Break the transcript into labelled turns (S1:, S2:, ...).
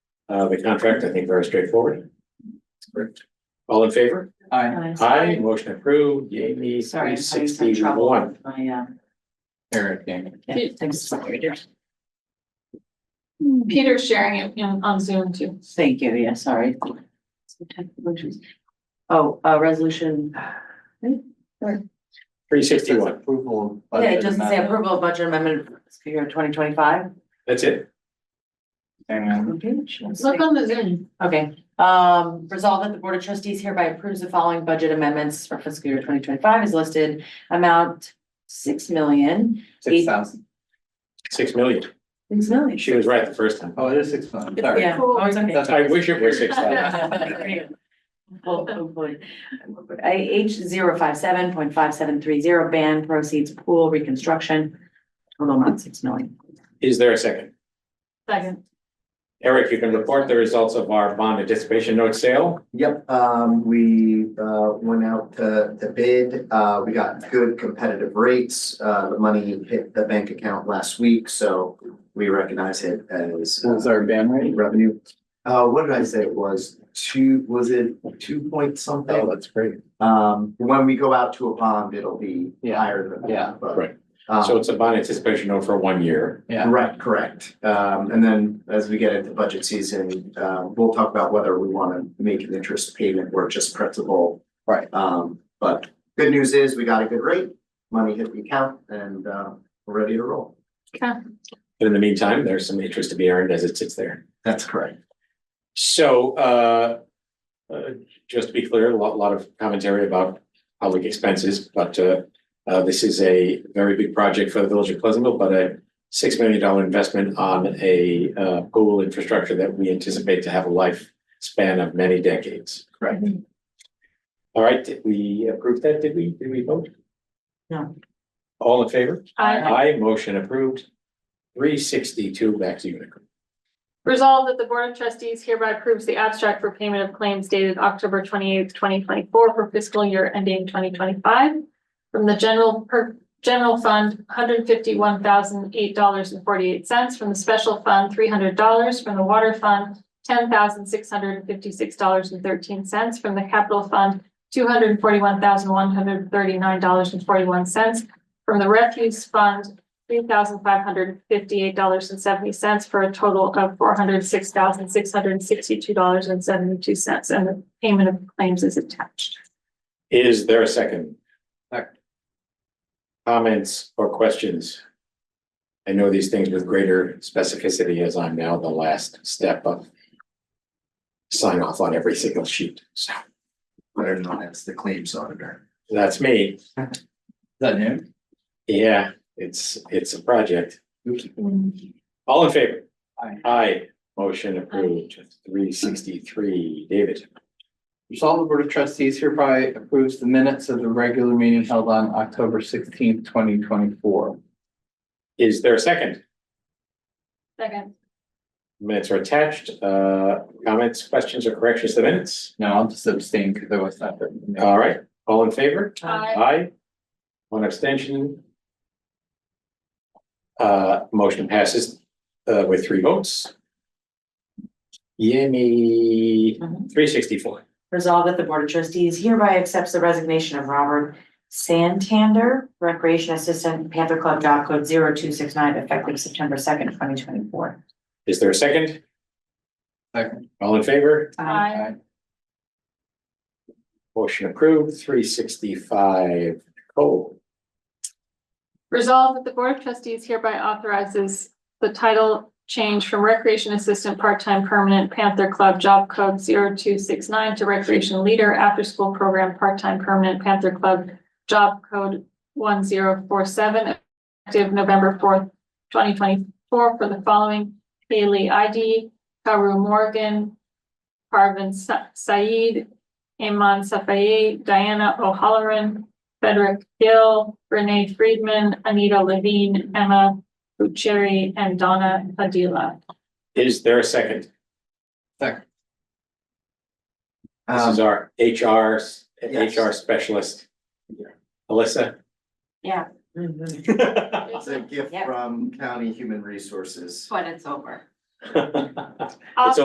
S1: uh, the contract, I think very straightforward. All in favor?
S2: Aye.
S1: Aye, motion approved, yay me, three
S3: Sorry, I'm having some
S1: sixty
S3: trouble
S1: one.
S3: with my, um,
S2: Eric Gaming.
S3: yeah, thanks, sorry, dear.
S4: Peter's sharing it you know, on Zoom too.
S3: Thank you, yeah, sorry. Some technical issues. Oh, uh, resolution,
S1: Three sixty one,
S2: Approval.
S3: yeah,
S2: of
S3: it doesn't say
S2: budget
S3: approval of budget amendment for fiscal year twenty twenty five.
S1: that's it.
S2: amendment.
S4: Look on the Zoom.
S3: Okay, um, resolve that the Board of Trustees hereby approves the following budget amendments for fiscal year twenty twenty five is listed. Amount six million,
S2: Six thousand.
S1: Six million.
S3: six million.
S1: She was right the first time.
S2: Oh, it is six thousand, sorry.
S3: Yeah, oh, it's okay.
S2: That's
S1: I wish it were six thousand.
S3: Well, hopefully. I H zero five seven point five seven three zero ban proceeds pool reconstruction. Total amount six million.
S1: Is there a second?
S4: Second.
S1: Eric, you can report the results of our bond anticipation note sale.
S5: Yep, um, we, uh, went out to, to bid, uh, we got good competitive rates, uh, the money hit the bank account last week, so we recognize it as. uh,
S2: What was our ban rate?
S5: Revenue, uh, what did I say it was, two, was it two point something?
S2: Oh, that's great.
S5: Um, when we go out to a bond, it'll be
S2: Yeah.
S5: higher than
S2: Yeah.
S5: that, but.
S1: Right.
S5: um,
S1: So it's a bond anticipation note for one year.
S2: Yeah,
S5: Right, correct. Um, and then as we get into budget season, uh, we'll talk about whether we want to make an interest payment or just principal.
S2: Right.
S5: Um, but good news is we got a good rate, money hit the account and, uh, we're ready to roll.
S1: And in the meantime, there's some interest to be earned as it sits there.
S5: That's correct.
S1: So, uh, uh, just to be clear, a lot, lot of commentary about public expenses, but, uh, uh, this is a very big project for the village of Pleasantville, but a six million dollar investment on a, uh, pool infrastructure that we anticipate to have a lifespan of many decades. Mm-hmm.
S5: Correct.
S1: All right, did we approve that? Did we, did we vote?
S3: No.
S1: All in favor?
S4: Aye.
S1: Aye, motion approved. Three sixty-two, back to you, Nicole.
S4: Resolved that the Board of Trustees hereby approves the abstract for payment of claims dated October twenty eighth, twenty twenty four for fiscal year ending twenty twenty five. From the general per, general fund, one hundred fifty one thousand eight dollars and forty eight cents, from the special fund, three hundred dollars, from the water fund. Ten thousand six hundred and fifty six dollars and thirteen cents, from the capital fund, two hundred forty one thousand one hundred thirty nine dollars and forty one cents. From the refuse fund, three thousand five hundred fifty-eight dollars and seventy cents for a total of four hundred six thousand six hundred sixty-two dollars and seventy-two cents, and the payment of claims is attached.
S1: Is there a second?
S2: Second.
S1: Comments or questions? I know these things with greater specificity as I'm now the last step of sign off on every single sheet. So
S5: Whether or not it's the claims auditor.
S1: that's me.
S2: is that new?
S1: Yeah, it's, it's a project. All in favor?
S2: Aye.
S1: Aye. Motion approved. Three sixty-three. David,
S2: Resolve the Board of Trustees hereby approves the minutes of the regular meeting held on October sixteenth, twenty twenty-four.
S1: is there a second?
S4: Second.
S1: Minutes are attached. Uh, comments, questions or corrections to the minutes?
S2: No, I'll just abstain because I was not. there.
S1: All right, all in favor?
S4: Aye.
S1: Aye. One abstention. Uh, motion passes, uh, with three votes. Yemi, three sixty-four.
S3: Resolve that the Board of Trustees hereby accepts the resignation of Robert Santander, Recreation Assistant, Panther Club, job code zero two six nine, effective September second, twenty twenty four.
S1: Is there a second?
S2: Second.
S1: All in favor?
S4: Aye.
S2: Aye.
S1: Motion approved, three sixty-five. Oh, Cole,
S4: Resolved that the Board of Trustees hereby authorizes the title change from Recreation Assistant Part-Time Permanent Panther Club Job Code 0269 to Recreation Leader After School Program Part-Time Permanent Panther Club Job Code one zero four seven effective November fourth, twenty twenty-four for the following Haley ID, Karu Morgan, Parvin Sa- Saeed, Iman Safaye, Diana O'Halloran, Frederick Gill, Renee Friedman, Anita Levine, Emma Bucherri, and Donna Padilla.
S1: is there a second?
S2: Second.
S1: This is
S5: Um,
S1: our HR, s-
S5: Yes.
S1: HR specialist. Alyssa?
S3: Yeah.
S5: It's a gift
S3: Yep.
S5: from County Human Resources.
S3: When it's over.
S1: It's